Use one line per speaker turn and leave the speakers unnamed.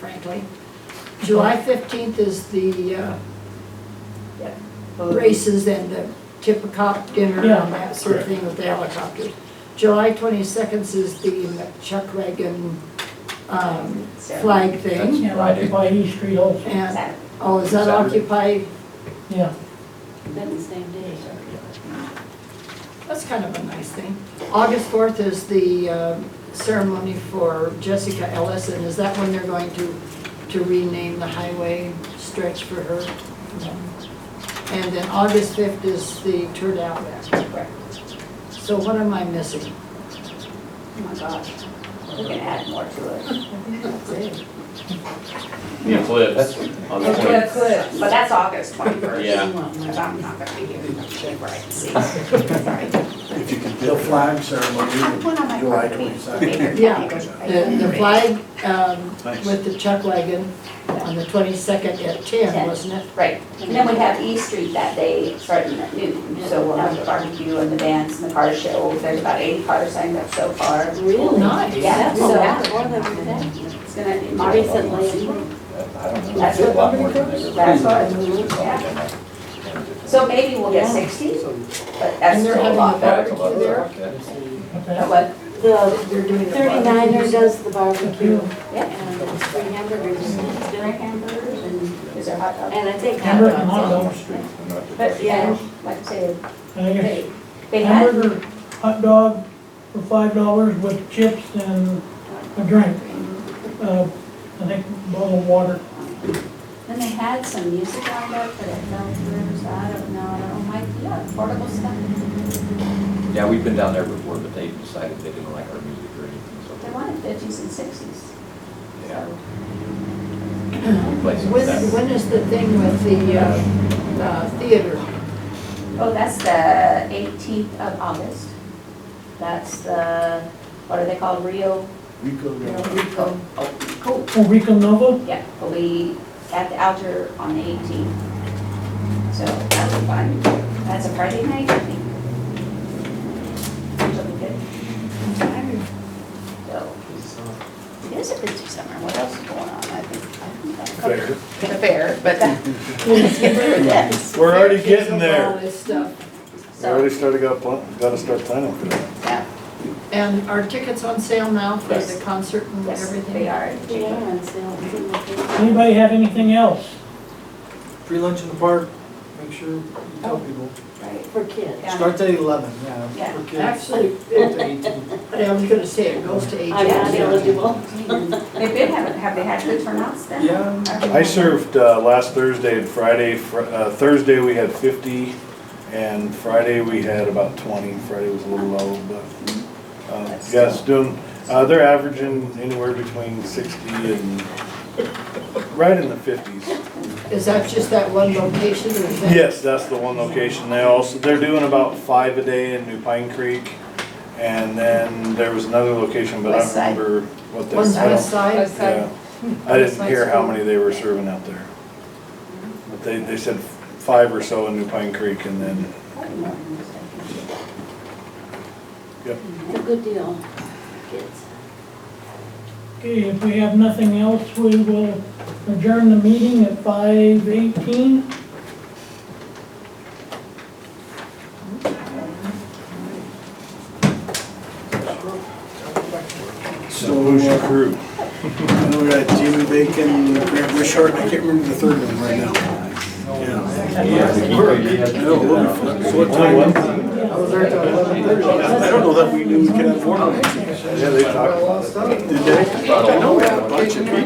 technically. July fifteenth is the uh, races and the tip of cop dinner
Yeah.
and that sort of thing with the helicopters. July twenty-second is the uh, chuck wagon um, flag thing.
Yeah, occupy East Street also,
And, oh, is that Occupy?
yeah.
That's the same day.
That's kind of a nice thing. August fourth is the uh, ceremony for Jessica Ellis, and is that when they're going to, to rename the highway stretch for her? And then August fifth is the Turd Outlet. So what am I missing?
Oh my gosh, we can add more to it.
The eclipse on the twenty.
But that's August twenty-first.
Yeah.
Cause I'm not gonna be here, I'm not sure where I can see. Sorry.
If you can build flag ceremony,
One on my
July
property.
22nd.
Yeah, The, the flag um, with the chuck wagon on the twenty-second at ten,
Ten.
wasn't it?
Right, and then we have E Street that day starting at noon, so we'll have the barbecue and the dance and the car show. There's about eighty cars signed up so far.
Oh, Nice.
Yeah, so
That's a lot more than we think.
it's gonna be
Recently.
I don't know,
That's
it's a
what
lot more than they
That's what,
really-
yeah. So maybe we'll get sixty, but that's
And they're
still a
having
lot.
a
That's a lot.
There.
But
Okay.
what-
The
They're doing the.
thirty-niner does the barbecue
Yeah.
and the free hamburgers.
Drink hamburgers and is there hot dogs?
And I think hot
Hamburger and
dogs.
hot
Elm
dogs.
Street, I'm not the-
But yeah, like I said,
I guess
they, they had,
hamburger, hot dog for five dollars with chips and a drink. Uh, I think a bottle of water.
then they had some music on there for that fell through, so I don't know, I don't like, yeah, portable stuff.
Yeah, we've been down there before, but they decided they didn't like our music or anything,
They wanted fifties and sixties.
Yeah.
So
so we played some of
When,
that.
when is the thing with the, uh, uh, theater?
Oh, that's the eighteenth of August. That's the, what are they called, Rio?
Rico,
Rio
yeah.
Rico. Oh, cool.
Oh, Rico Nova,
Yeah, we'll be at the Altar on the eighteenth. So that'll be fun. That's a Friday night, I think. Which will be good. So. It is a busy summer. What else is going on? I think, I think that's covered. The fair, but that. Yes.
We're already getting
All
there.
this stuff.
We already
So,
started, got, pl- gotta start planning for that.
yeah,
And are tickets on sale now for the
Yes.
concert and
yes, they
everything?
are.
Yeah, and so it's in the thing.
anybody have anything else?
Free lunch in the park, make sure you tell people.
Right,
for kids.
yeah.
Starts at eleven,
Oh, Yeah.
yeah, for kids.
Actually,
Up
it-
to
Oh.
eighteen.
I was gonna say, it goes to eight.
I'm not eligible.
They've been, having- have they had good turnouts then?
Yeah.
I served uh, last Thursday and Friday. Fr- uh, Thursday, we had 50, and Friday, we had about 20. Friday was a little low, but, uh,
That's
yes, doing, uh, they're averaging anywhere between 60 and, right in the 50s.
Is that just that one location or is that?
Yes, that's the one location. They also, they're doing about five a day in New Pine Creek. And then there was another location, but I
West side.
don't remember what that.
On
I
the
don't-
west side?
yeah. I didn't hear how many they were serving out there. But they, they said five or so in New Pine Creek and then, yep.
It's a good deal, kids.
Okay, if we have nothing else, we will adjourn the meeting at five eighteen.
So,
Who's your
uh,
crew?
I know we got Jimmy Bacon, Grant Richard, I can't remember the third one right now. Yeah. No, we'll be fine. So what time? I was there till eleven thirty. I don't know that we knew we could have four.
Yeah, they talked about it.
Did they? I know we had a bunch of people.